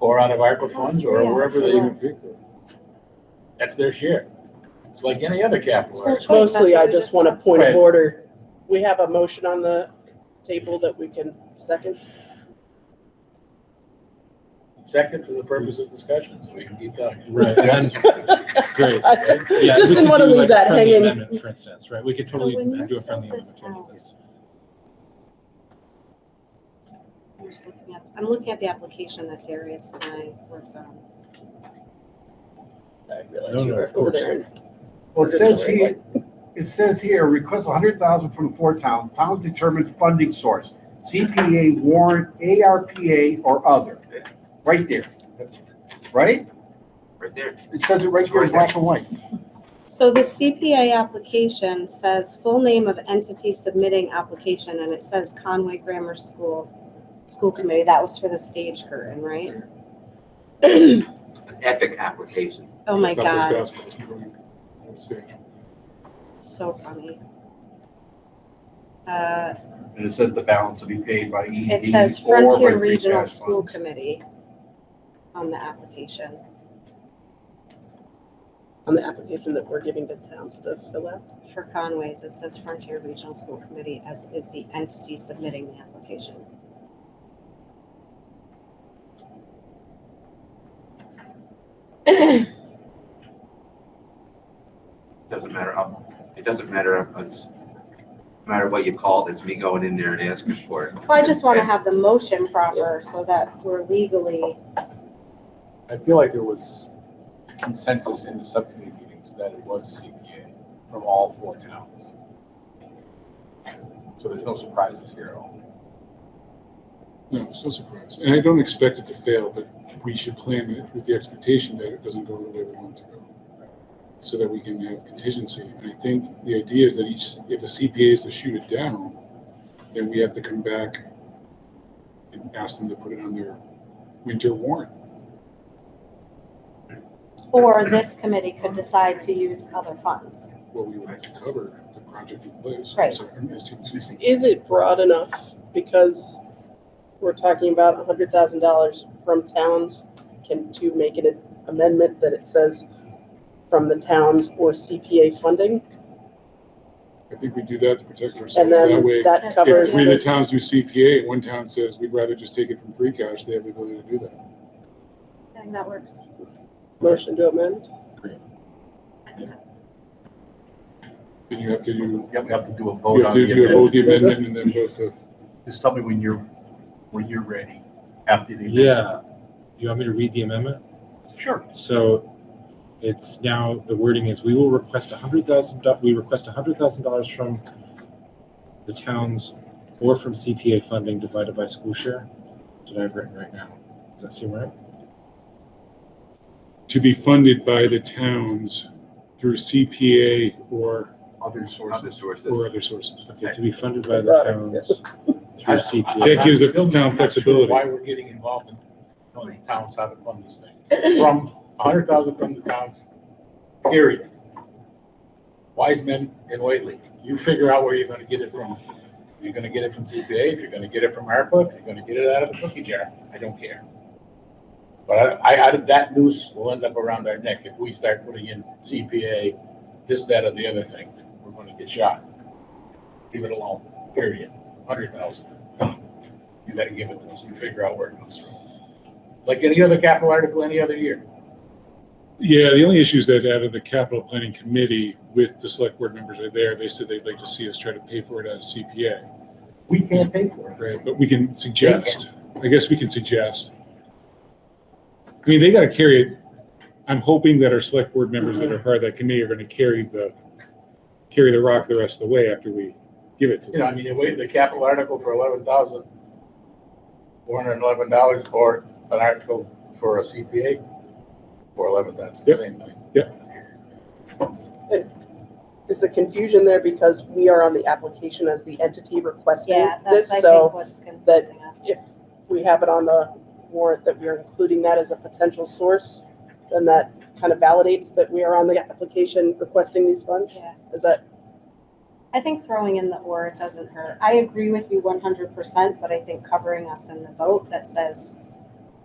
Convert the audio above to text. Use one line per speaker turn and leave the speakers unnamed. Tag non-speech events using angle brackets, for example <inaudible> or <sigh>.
or out of ARPA funds or
Yeah,
wherever they,
sure.
that's their share. It's like any other capital.
School
outlay.
choice, that's
Mostly,
what
I
we
just want a point
Right.
of order. We have a motion on the table that we can second.
Second, for the purpose of discussion, so we can keep talking.
Right,
<laughs>
and- great. <laughs> Yeah,
Just
we
didn't
could
wanna
do,
leave
like, a
that
friendly
hanging.
amendment, For instance, right, we could
So
totally
when you
do a friendly
fill this
amendment.
out-
to any of this.
I'm just looking at- I'm looking at the application that Darius and I worked on.
I realize
No,
you
no,
were
of
over
course.
there.
Well, it says here, it says here, request hundred thousand from the Fort Town, town determines funding source, CPA, warrant, ARPA, or other. Right there, right?
Right there.
It says it right there in black and white.
So the CPA application says full name of entity submitting application, and it says Conway Grammar School, School Committee. That was for the stage curtain, right?
An epic application.
Oh my
It's not just
God,
basketball, it's moving on stage.
so funny. Uh,
And it says the balance will be paid by ED.
It says
or by
Frontier
free
Regional
cash
School
funds.
Committee on the application.
On the application that we're giving to towns to fill out.
For Conway's, it says Frontier Regional School Committee as is the entity submitting the application.
Doesn't matter, up- it doesn't matter, if it's, no matter what you call it, it's me going in there and asking for it.
Well, I just want to have the motion proper so that we're legally,
I feel like there was consensus in the subcommittee meetings that it was CPA from all four towns. So there's no surprises here at all.
No, it's no surprise. And I don't expect it to fail, but we should plan it with the expectation that it doesn't go the way we want it to go. So that we can have contingency. And I think the idea is that each, if a CPA is to shoot it down, then we have to come back and ask them to put it on their winter warrant.
or this committee could decide to use other funds.
Well, we would have to cover the project in place.
Right.
So, I'm missing something.
Is it broad enough? Because we're talking about a hundred thousand dollars from towns. Can to make an amendment that it says from the towns or CPA funding?
I think we do that to protect
And
ourselves. That way,
then that
That's
covers.
If we, the
this-
towns do CPA, and one town says, we'd rather just take it from free cash, they have the ability to do that.
I think that works.
Motion to amend?
Then you have to do,
Yep, we have to do a
you
vote
have
on
to
the
do vote
amendment.
the amendment and then vote the,
Just tell me when you're, when you're ready, after the.
Yeah, you want me to read the amendment?
Sure.
So it's now, the wording is, we will request a hundred thousand, we request a hundred thousand dollars from the towns or from CPA funding divided by school share. That's what I've written right now. Does that seem right?
to be funded by the towns through CPA or,
Other sources.
Other sources.
or other sources.
Okay, to be funded by the towns through
That
CPA.
gives the
I'm still
town
not sure
flexibility.
Why we're getting involved in telling the towns how to fund this thing. From a hundred thousand from the towns, period. Wiseman and Whately, you figure out where you're gonna get it from. If you're gonna get it from CPA, if you're gonna get it from ARPA, if you're gonna get it out of the cookie jar, I don't care. But I, I, I- that noose will end up around our neck if we start putting in CPA, this, that, or the other thing. We're gonna get shot. Leave it alone, period. Hundred thousand. You gotta give it to us. You figure out where it comes from. Like any other capital article, any other year.
Yeah, the only issue is that out of the capital planning committee with the select board members are there, they said they'd like to see us try to pay for it out of CPA.
We can't pay for
Right,
it.
but we can suggest, I guess we can suggest. I mean, they gotta carry it, I'm hoping that our select board members that are part of that committee are gonna carry the, carry the rock the rest of the way after we give it to
You know, I
them.
mean, you wait, the capital article for eleven thousand, four hundred and eleven dollars or an article for a CPA for eleven, that's the
Yep.
same thing.
Is the confusion there because we are on the application as the entity requesting
Yeah,
this?
that's, I think,
So
what's confusing us.
if we have it on the warrant that we are including that as a potential source, then that kind of validates that we are on the application requesting these funds?
Yeah.
Is that,
I think throwing in the or doesn't hurt. I agree with you one hundred percent, but I think covering us in the vote that says